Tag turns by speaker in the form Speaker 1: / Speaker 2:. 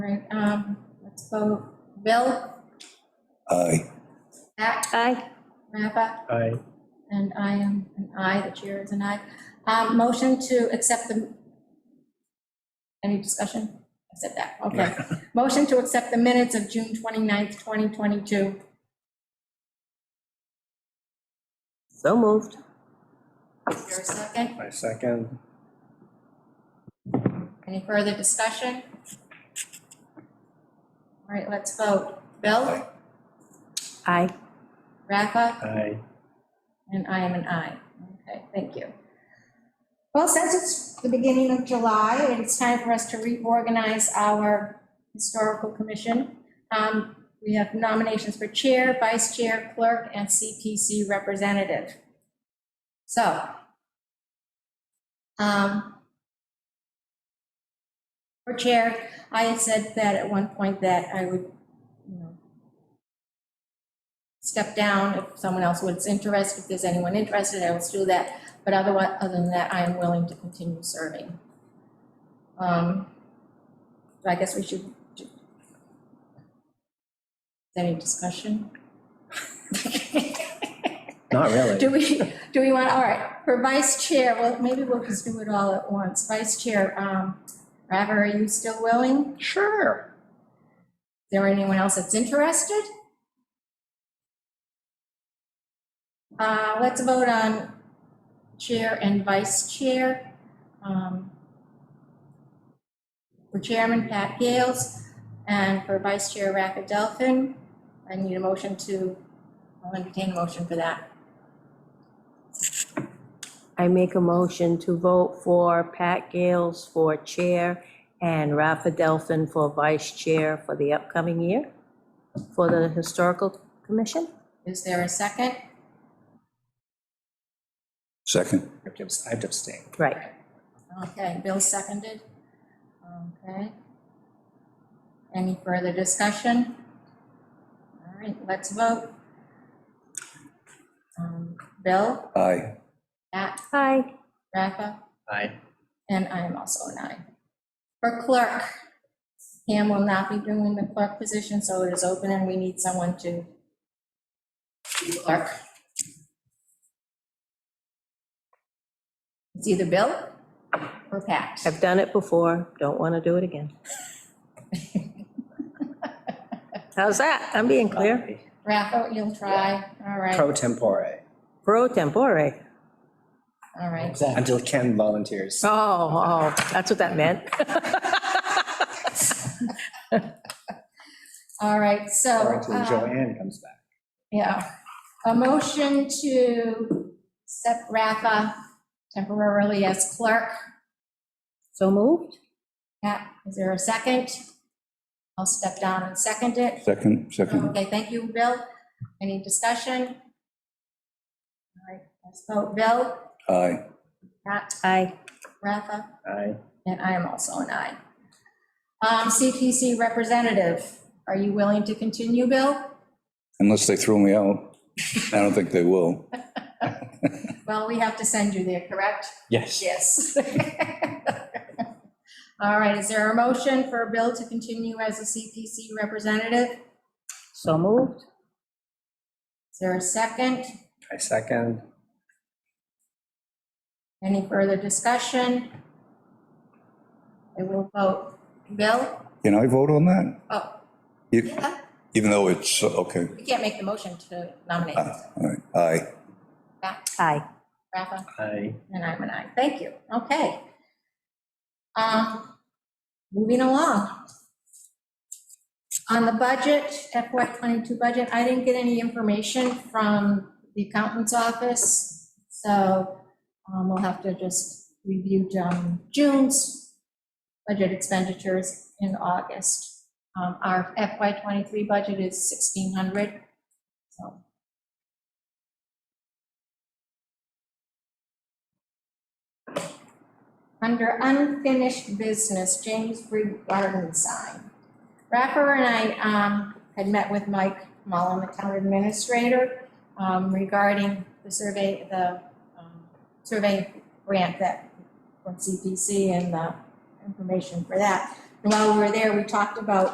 Speaker 1: Um, let's vote. Bill,
Speaker 2: Aye.
Speaker 1: Zach,
Speaker 3: Aye.
Speaker 1: Rafa,
Speaker 4: Aye.
Speaker 1: and I am an aye, the chair is an aye. Um, motion to accept the, any discussion? I said that, okay. Motion to accept the minutes of June 29th, 2022.
Speaker 3: So moved.
Speaker 1: Is there a second?
Speaker 4: My second.
Speaker 1: Any further discussion? All right, let's vote. Bill,
Speaker 3: Aye.
Speaker 1: Rafa,
Speaker 4: Aye.
Speaker 1: And I am an I. Okay, thank you. Well, since it's the beginning of July, and it's time for us to reorganize our historical commission. um, We have nominations for chair, vice chair, clerk, and CPC representative. So. um, For chair, I had said that at one point that I would, you know, step down if someone else was interested, if there's anyone interested, I will still do that. But otherwise, other than that, I am willing to continue serving. Um, so I guess we should. do- Any discussion?
Speaker 4: Not really.
Speaker 1: Do we, do we want, all right, for vice chair, well, maybe we'll just do it all at once. Vice chair, um, Raver, are you still willing? Is
Speaker 4: Sure.
Speaker 1: there anyone else that's interested? Uh, let's vote on chair and vice chair. Um, For chairman, Pat Gales, and for vice chair, Rafa Delphin. I need a motion to, I'll entertain a motion for that.
Speaker 3: I make a motion to vote for Pat Gales for chair and Rafa Delphin for vice chair for the upcoming year for the Historical Commission.
Speaker 1: Is there a second?
Speaker 2: Second?
Speaker 4: I'd abstain.
Speaker 3: Right.
Speaker 1: Okay, Bill seconded. Okay. Any further discussion? All right, let's vote. Um, Bill,
Speaker 2: Aye.
Speaker 1: Matt,
Speaker 3: Aye.
Speaker 1: Rafa,
Speaker 4: Aye.
Speaker 1: and I am also an aye. For clerk, Pam will not be doing the clerk position, so it is open and we need someone to be clerk. It's either Bill or Pat.
Speaker 3: I've done it before. Don't want to do it again. How's that? I'm being clear.
Speaker 1: Rafa, you'll try, all right,
Speaker 4: Pro tempore,
Speaker 3: Pro tempore.
Speaker 1: all right.
Speaker 4: until Ken volunteers.
Speaker 3: Oh, oh, that's what that meant.
Speaker 1: All right, so,
Speaker 4: Or until
Speaker 1: um,
Speaker 4: Joanne comes back.
Speaker 1: yeah, a motion to accept Rafa temporarily as clerk.
Speaker 3: So moved?
Speaker 1: Pat, is there a second? I'll step down and second it.
Speaker 2: Second, second.
Speaker 1: Okay, thank you, Bill. Any discussion? All right, let's vote. Bill,
Speaker 2: Aye.
Speaker 1: Pat,
Speaker 3: Aye.
Speaker 1: Rafa,
Speaker 4: Aye.
Speaker 1: and I am also an aye. Um, CPC representative, are you willing to continue, Bill?
Speaker 2: Unless they throw me out. I don't think they will.
Speaker 1: Well, we have to send you there, correct?
Speaker 4: Yes.
Speaker 1: Yes. All right, is there a motion for Bill to continue as a CPC representative?
Speaker 3: So moved?
Speaker 1: Is there a second?
Speaker 4: I second.
Speaker 1: Any further discussion? I will vote. Bill?
Speaker 2: Can I vote on that?
Speaker 1: Oh,
Speaker 2: E- Even though it's, okay,
Speaker 1: we can't make the motion to nominate.
Speaker 2: Ah, all right, aye.
Speaker 1: Back,
Speaker 3: Aye.
Speaker 1: Rafa,
Speaker 4: Aye.
Speaker 1: and I'm an aye. Thank you. Okay. Um, Moving along. On the budget, FY '22 budget, I didn't get any information from the accountant's office, so um, we'll have to just review um, June's budget expenditures in August. Um, Our FY '23 budget is 1,600, so. Under unfinished business, James Breed Garden sign. Rapper and I um, had met with Mike Mullen, the town administrator, um, regarding the survey, the um, survey grant that, from CPC and the information for that. And While we were there, we talked about